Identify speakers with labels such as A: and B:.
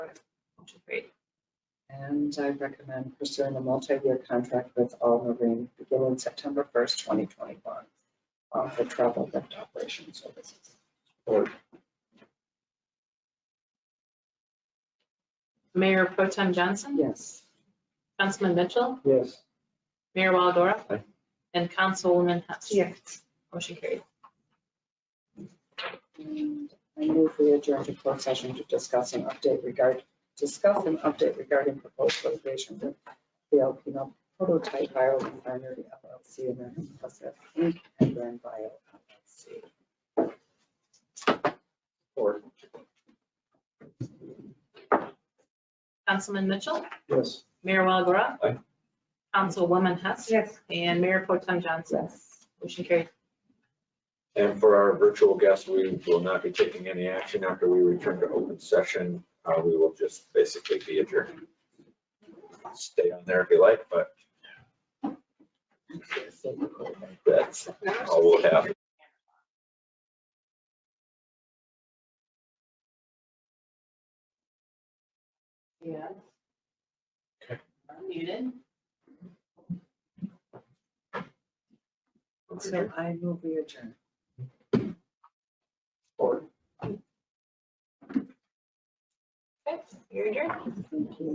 A: Motion carried.
B: And I recommend pursuing a multi-year contract with All Marine beginning September first, twenty twenty-one for travel lift operation services.
A: Mayor Pro Tem Johnson,
B: Yes.
A: Councilman Mitchell,
C: Yes.
A: Mayor Walagora.
C: Aye.
A: And Councilwoman Hess.
B: Yes.
A: Motion carried.
B: And I move we adjourn to closed session to discuss an update regard, discuss an update regarding proposed litigation with the Alpino Prototype Bio Refinery LLC and American Process Inc. and Grand Bio LLC.
C: Or,
A: Councilman Mitchell,
C: yes.
A: Mayor Walagora.
C: Aye.
A: Councilwoman Hess.
B: Yes.
A: And Mayor Pro Tem Johnson.
B: Yes.
A: Motion carried.
D: And for our virtual guests, we will not be taking any action after we return to open session. Uh, we will just basically be adjourned. Stay on there if you like, but that's all we'll have.
A: Yeah. Muted.
B: So I move we adjourn.
D: Or-
A: Okay, You're adjourned.
B: Thank you.